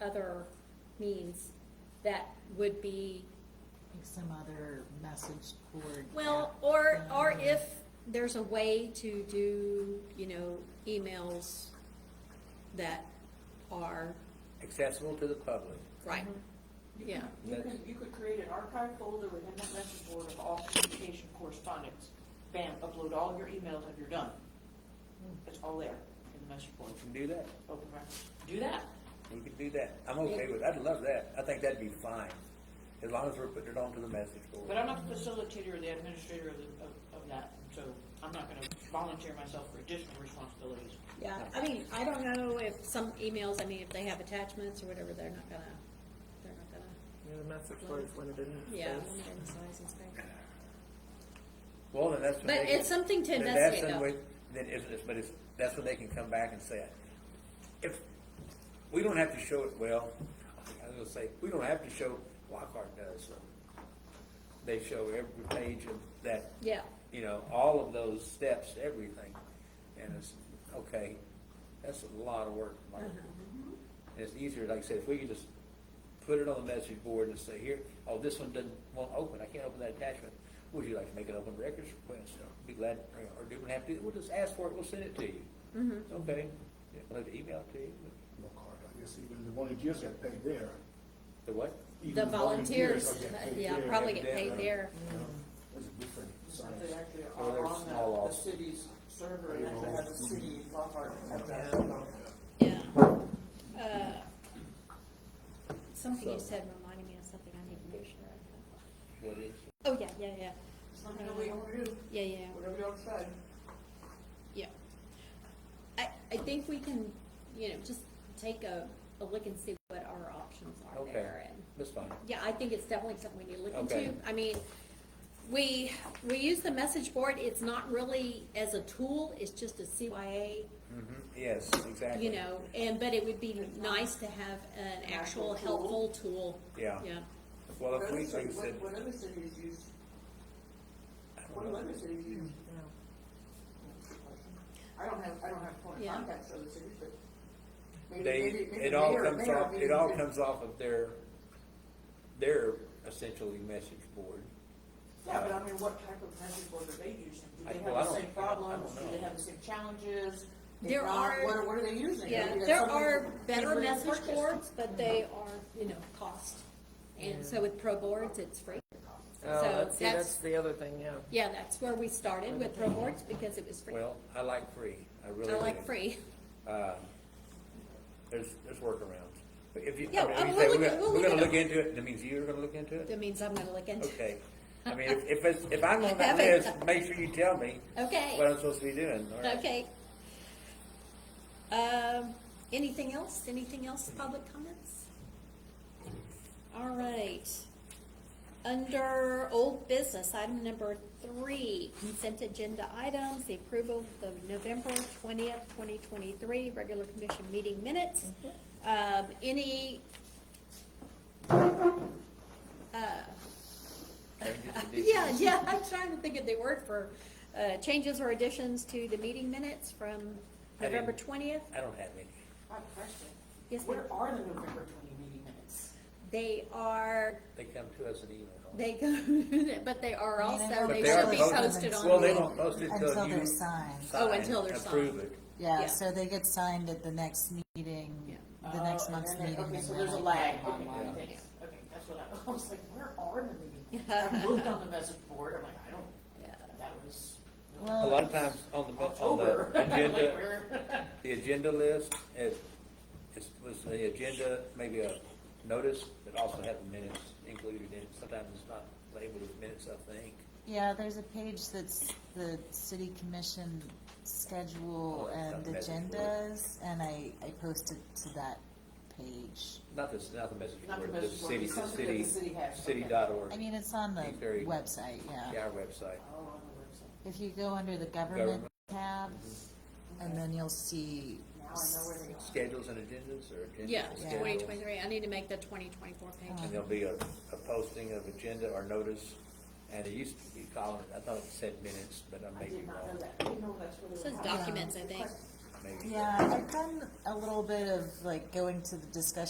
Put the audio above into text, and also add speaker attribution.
Speaker 1: other means that would be,
Speaker 2: Like some other message board.
Speaker 1: well,
Speaker 2: app
Speaker 1: or,
Speaker 2: thing
Speaker 1: or if there's a way to do, you know, emails that are,
Speaker 3: accessible to the public.
Speaker 1: right, yeah.
Speaker 4: You
Speaker 3: That's-
Speaker 4: could, you could create an archive folder within that message board of all communication correspondence. Bam, upload all your emails and you're done. It's all there in the message board,
Speaker 3: We can do that.
Speaker 4: open records. Do that.
Speaker 3: We can do that. I'm okay with, I'd love that. I think that'd be fine, as long as we're putting it onto the message
Speaker 4: But
Speaker 3: board.
Speaker 4: I'm not the facilitator or the administrator of, the- of, of that, so I'm not gonna volunteer myself for additional responsibilities.
Speaker 1: Yeah, I mean, I don't know if some emails, I mean, if they have attachments or whatever, they're not gonna, they're not gonna,
Speaker 5: Yeah, the message board is limited in
Speaker 1: yeah.
Speaker 5: space.
Speaker 3: Well, then that's when
Speaker 1: But
Speaker 3: they can-
Speaker 1: it's something to
Speaker 3: then that's
Speaker 1: investigate,
Speaker 3: when
Speaker 1: though.
Speaker 3: we- Then it's, it's- but it's, that's when they can come back and say, it. if, we don't have to show it, well, I was gonna say, we don't have to show, Lockhart does. so. They show every page of that
Speaker 1: Yeah,
Speaker 3: you know, all of those steps, everything. And it's, okay, that's a lot of work, Mike.
Speaker 1: Uh-huh.
Speaker 3: And it's easier, like I said, if we could just put it on the message board and say, here, oh, this one doesn't, won't open, I can't open that attachment. Would you like to make an open records request? Be glad, or do we have to, we'll just ask for it, we'll send it to you.
Speaker 1: Mm-hmm.
Speaker 3: Okay, yeah, we'll have to email it to you.
Speaker 6: no card. I guess even the volunteers get paid there.
Speaker 3: The what?
Speaker 6: Even
Speaker 1: the volunteers, uh,
Speaker 6: are getting paid
Speaker 1: yeah,
Speaker 6: there.
Speaker 1: probably get
Speaker 3: evidently.
Speaker 1: paid there.
Speaker 6: You know, There's a different side.
Speaker 4: They actually
Speaker 3: Well,
Speaker 4: are
Speaker 3: there's
Speaker 4: on
Speaker 3: small
Speaker 4: the, the
Speaker 3: office. Mm-hmm.
Speaker 4: city's server and actually have a city Lockhart at that.
Speaker 1: Yeah. Uh, Something you said reminded me of something I need to make sure I
Speaker 3: What is?
Speaker 1: have. Oh, yeah, yeah, yeah.
Speaker 4: It's not gonna wait over you,
Speaker 1: Yeah, yeah,
Speaker 4: whatever y'all decide.
Speaker 1: yeah. I, I think we can, you know, just take a, a look and see what our options are
Speaker 3: Okay.
Speaker 1: there and.
Speaker 3: That's fine.
Speaker 1: Yeah, I think it's definitely something we need to look
Speaker 3: Okay.
Speaker 1: into. I mean, we, we use the message board, it's not really as a tool, it's just a CYA,
Speaker 4: Mm-hmm.
Speaker 3: Mhm, Yes, exactly.
Speaker 1: you know, and, but it would be nice to have an actual helpful tool.
Speaker 3: Yeah.
Speaker 1: Yeah,
Speaker 3: Well,
Speaker 4: What
Speaker 3: if we,
Speaker 4: other
Speaker 3: like I
Speaker 4: cities,
Speaker 3: said,
Speaker 4: what, what other cities use,
Speaker 3: I don't
Speaker 4: what
Speaker 3: know.
Speaker 4: do other cities use? I don't have, I don't have point of
Speaker 1: Yeah.
Speaker 4: contacts for other cities, but maybe,
Speaker 3: they,
Speaker 4: maybe, maybe.
Speaker 3: it all
Speaker 4: mayor-
Speaker 3: comes
Speaker 4: mayor
Speaker 3: off, it all
Speaker 4: meetings
Speaker 3: comes off of their, their essentially message board.
Speaker 4: is- Yeah, but I mean, what type of message board are they using? Do
Speaker 3: I-
Speaker 4: they
Speaker 3: well, I
Speaker 4: have the
Speaker 3: don't- I
Speaker 4: same
Speaker 3: don't
Speaker 4: problems? Do
Speaker 3: know.
Speaker 4: they have the same challenges? If
Speaker 1: There
Speaker 4: not,
Speaker 1: are-
Speaker 4: What are, what are they using?
Speaker 1: yeah,
Speaker 4: Maybe that's
Speaker 1: there
Speaker 4: something
Speaker 1: are
Speaker 4: that
Speaker 1: better
Speaker 4: they
Speaker 1: message
Speaker 4: purchased.
Speaker 1: boards, but they are, you know, cost. And so with pro boards, it's free.
Speaker 5: Oh,
Speaker 1: So
Speaker 5: that's, see, that's
Speaker 1: that's,
Speaker 5: the other thing, yeah.
Speaker 1: yeah, that's where we started with pro boards, because it was free.
Speaker 3: Well, I like free, I really
Speaker 1: I
Speaker 3: do.
Speaker 1: like free.
Speaker 3: Uh, There's, there's workarounds. But if you,
Speaker 1: Yeah,
Speaker 3: I mean,
Speaker 1: uh,
Speaker 3: if you
Speaker 1: we'll
Speaker 3: say,
Speaker 1: look
Speaker 3: we're
Speaker 1: at-
Speaker 3: gonna,
Speaker 1: we'll
Speaker 3: we're
Speaker 1: look
Speaker 3: gonna
Speaker 1: at
Speaker 3: look into it, that means you're gonna look into it?
Speaker 1: That means I'm gonna look into it.
Speaker 3: Okay. I mean, if, if it's, if I'm on that
Speaker 1: Heaven.
Speaker 3: list, make sure you tell me
Speaker 1: Okay.
Speaker 3: what I'm supposed to be doing. or-
Speaker 1: Okay. Um, anything else? Anything else, public comments? All right. Under old business, item number three, consent agenda items, the approval of the November twentieth, twenty twenty-three, regular commission meeting minutes. Um, any? Uh,
Speaker 3: Changes,
Speaker 1: yeah,
Speaker 3: additions.
Speaker 1: yeah, I'm trying to think of the word for, uh, changes or additions to the meeting minutes from
Speaker 3: I didn't-
Speaker 1: November twentieth.
Speaker 3: I don't have any.
Speaker 4: I have a question.
Speaker 1: Yes, ma'am.
Speaker 4: Where are the November twenty meeting minutes?
Speaker 1: They are,
Speaker 3: They come to us in email.
Speaker 1: they go, but they are also,
Speaker 3: But
Speaker 1: they
Speaker 3: they
Speaker 1: should
Speaker 3: are
Speaker 1: be
Speaker 3: posted.
Speaker 1: posted
Speaker 3: Well, they
Speaker 1: on.
Speaker 3: don't post it
Speaker 2: Until
Speaker 3: until you.
Speaker 2: they're signed.
Speaker 1: Oh, until they're
Speaker 3: Approve
Speaker 1: signed.
Speaker 3: it.
Speaker 1: Yeah.
Speaker 2: Yeah, so they get signed at the next meeting, the next
Speaker 4: Oh,
Speaker 2: month's
Speaker 4: and then
Speaker 2: meeting.
Speaker 4: they- Okay,
Speaker 2: and
Speaker 4: so
Speaker 2: they're
Speaker 4: there's a
Speaker 2: like,
Speaker 4: lag.
Speaker 2: "Oh,
Speaker 4: Okay,
Speaker 2: wow."
Speaker 4: okay, okay, that's what I, I was like, where are the meeting? minutes? I looked on the message board, I'm like, I
Speaker 1: Yeah.
Speaker 4: don't, that was.
Speaker 3: A
Speaker 2: Well,
Speaker 3: lot of times on the, bu- on the
Speaker 4: October. I'm like,
Speaker 3: agenda,
Speaker 4: where-
Speaker 3: the agenda list, it, it was the agenda, maybe a notice that also had the minutes included in it. Sometimes it's not labeled as minutes, I think.
Speaker 2: yeah, there's a page that's the city commission schedule
Speaker 3: Oh,
Speaker 2: and
Speaker 3: that's message board.
Speaker 2: agendas, and I, I posted to that page.
Speaker 3: Not this, not the message
Speaker 4: Not the
Speaker 3: board, the
Speaker 4: message board,
Speaker 3: city,
Speaker 4: it's
Speaker 3: the
Speaker 4: something that
Speaker 3: city,
Speaker 4: the city has,
Speaker 3: city
Speaker 4: okay.
Speaker 3: dot org,
Speaker 2: I mean, it's on the
Speaker 3: Be very-
Speaker 2: website, yeah.
Speaker 3: yeah, our website.
Speaker 4: Oh, on the
Speaker 2: If you go under the government
Speaker 3: Government.
Speaker 2: tab, and then you'll see
Speaker 4: website. Mm-hmm. Now I know where they are.
Speaker 3: Schedules and agendas or agendas?
Speaker 1: Yeah,
Speaker 3: and
Speaker 2: Yeah.
Speaker 1: twenty
Speaker 3: schedules.
Speaker 1: twenty-three, I need to make the twenty twenty-four page.
Speaker 3: And there'll be a, a posting of agenda or notice, and it used to be called, I thought it said minutes, but I
Speaker 4: I
Speaker 3: may be
Speaker 4: did not know
Speaker 3: wrong,
Speaker 4: that, I didn't know that's where they
Speaker 1: It
Speaker 4: were.
Speaker 1: says
Speaker 4: at.
Speaker 1: documents, I think.
Speaker 3: maybe.
Speaker 2: Yeah, I've done a little bit of like going to the discussion